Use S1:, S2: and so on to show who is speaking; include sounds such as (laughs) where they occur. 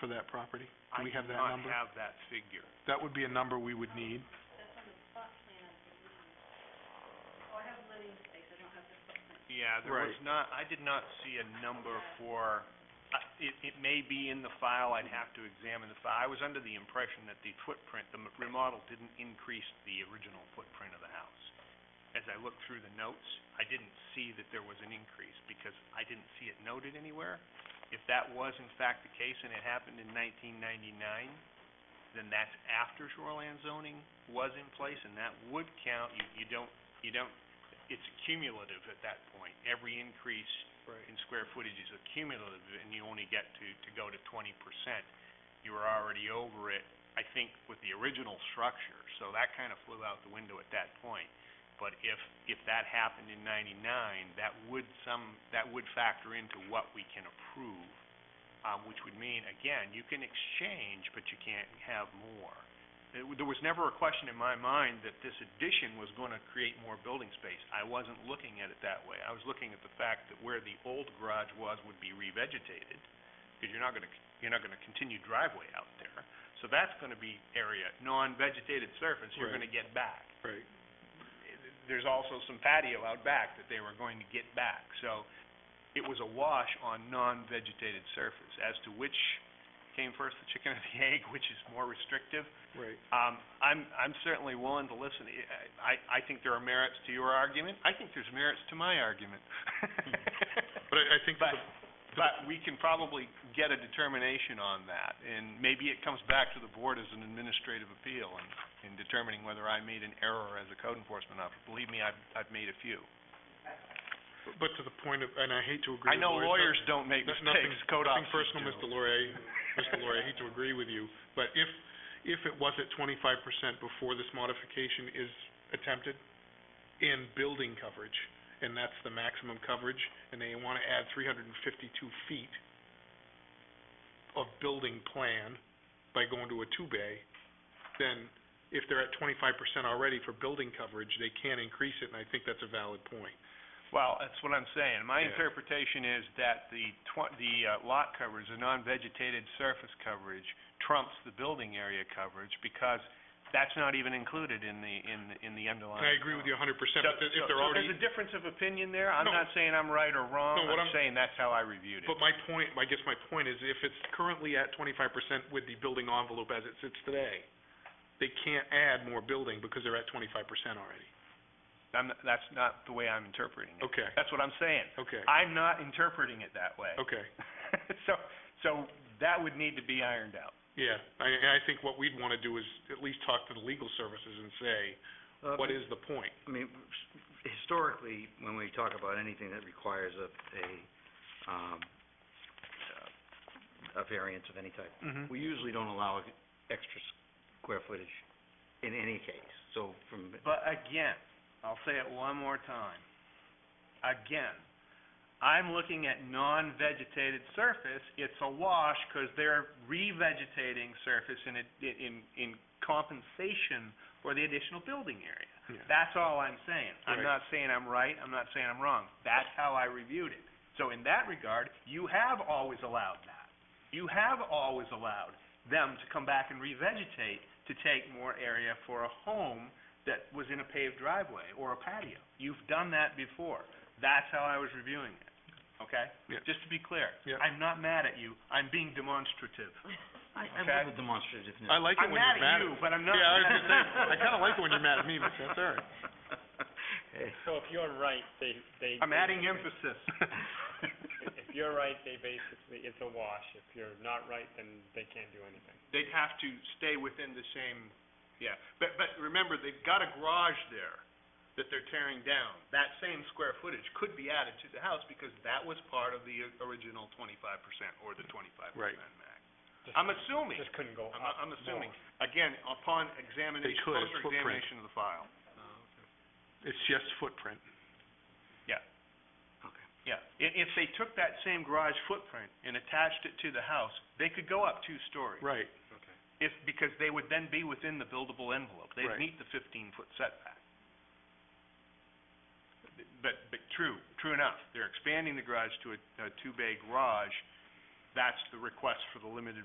S1: for that property?
S2: I
S1: Do we have
S2: do
S1: that
S2: not
S1: number?
S2: have that figure.
S1: That would be a number we would need.
S2: Yeah, there was
S1: Right.
S2: not, I did not see a number for, I- it, it may be in the file, I'd have to examine the file. I was under the impression that the footprint, the m- remodel didn't increase the original footprint of the house. As I looked through the notes, I didn't see that there was an increase, because I didn't see it noted anywhere. If that was in fact the case, and it happened in nineteen ninety-nine, then that's after shoreland zoning was in place, and that would count, you, you don't, you don't it's cumulative at that point. Every increase in square footage is cumulative, and you only get to, to go to twenty percent. You were already over it, I think, with the original structure, so that kind of flew out the window at that point. But if, if that happened in ninety-nine, that would some, that would factor into what we can approve, um, which would mean, again, you can exchange, but you can't have more it w- there was never a question in my mind that this addition was going to create more building space. I wasn't looking at it that way. I was looking at the fact that where the old garage was would be revegetated, because you're not going to, you're not going to continue driveway out there. So that's going to be area, non-vegetated surface you're
S1: Right.
S2: going to get back.
S1: Right.
S2: There's also some patio out back that they were going to get back. So it was a wash on non-vegetated surface. As to which came first, the chicken or the (laughs) egg, which is more restrictive,
S1: Right.
S2: um, I'm, I'm certainly willing to listen. I, I- I think there are merits to your argument. I think there's merits to my argument. (laughs)
S1: But I, I think
S2: But,
S1: the,
S2: but we can probably get a determination on that, and maybe it comes back to the board as an administrative appeal in, in determining whether I made an error as a code enforcement officer. Believe me, I've, I've made a few.
S1: but to the point of, and I hate to agree
S2: I
S1: with lawyers.
S2: know
S1: but-
S2: lawyers don't make
S1: No-
S2: mistakes, code
S1: Nothing
S2: officers
S1: personal,
S2: do.
S1: Mr. Laurier, (laughs) Mr. Laurier, I hate to agree with you, but if, if it was at twenty-five percent before this modification is attempted in building coverage, and that's the maximum coverage, and they wanna add three hundred and fifty-two feet of building plan by going to a two-bay, then if they're at twenty-five percent already for building coverage, they can't increase it, and I think that's a valid point.
S2: Well, that's what I'm saying. My
S1: Yeah.
S2: interpretation is that the tw- the uh, lot coverage, the non-vegetated surface coverage trumps the building area coverage because that's not even included in the, in the, in the underlying.
S1: And I agree with you hundred percent,
S2: So-
S1: but if
S2: so-
S1: they're
S2: so
S1: already
S2: there's a difference of opinion there. I'm
S1: No.
S2: not saying I'm right or wrong.
S1: No, what I'm-
S2: saying that's how I reviewed it.
S1: But my point, I guess my point is, if it's currently at twenty-five percent with the building envelope as it sits today, they can't add more building because they're at twenty-five percent already.
S2: I'm, not- that's not the way I'm interpreting it.
S1: Okay,
S2: That's what I'm saying.
S1: okay,
S2: I'm not interpreting it that way.
S1: okay,
S2: (laughs) So, so that would need to be ironed out.
S1: yeah. I, and I think what we'd wanna do is at least talk to the legal services and say, what is the point?
S3: Uh, I mean, historically, when we talk about anything that requires a, a, um, a variance of any type,
S1: Mm-hmm.
S3: we usually don't allow extra square footage in any case, so from,
S2: But again, I'll say it one more time. Again, I'm looking at non-vegetated surface, it's a wash because they're revegetating surface in, a- in, in compensation for the additional building area. That's all I'm saying.
S1: Right.
S2: I'm not saying I'm right, I'm not saying I'm wrong. That's how I reviewed it. So in that regard, you have always allowed that. You have always allowed them to come back and revegetate to take more area for a home that was in a paved driveway or a patio. You've done that before. That's how I was reviewing it, okay?
S1: Yeah.
S2: Just to be clear.
S1: Yeah.
S2: I'm not mad at you, I'm being demonstrative.
S3: I, I
S2: Okay.
S3: love the demonstrativeness.
S1: I like it
S2: I'm
S1: when you're mad
S2: mad at you, but I'm not
S1: Yeah, I was
S2: mad
S1: gonna say, I kinda like it when you're mad at me, but that's all right.
S3: Hey,
S4: So if you're right, they, they.
S2: (laughs) I'm adding (laughs) emphasis.
S4: If you're right, they basically, it's a wash. If you're not right, then they can't do anything.
S2: They'd have to stay within the same, yeah, but, but remember, they've got a garage there that they're tearing down. That same square footage could be added to the house because that was part of the original twenty-five percent or the twenty-five
S1: Right.
S2: percent max. I'm assuming,
S4: Just couldn't go up
S2: I'm, I'm assuming,
S4: more.
S2: again, upon examination,
S1: could, it's
S2: closer
S1: footprint.
S2: examination of the file.
S1: It's just footprint.
S3: okay.
S2: Yeah, i- if they took that same garage footprint and attached it to the house, they could go up two stories.
S1: Right.
S2: If, because they would then be within the buildable envelope. They'd
S1: Right.
S2: meet the fifteen-foot setback. But, but true, true enough. They're expanding the garage to a, a two-bay garage. That's the request for the limited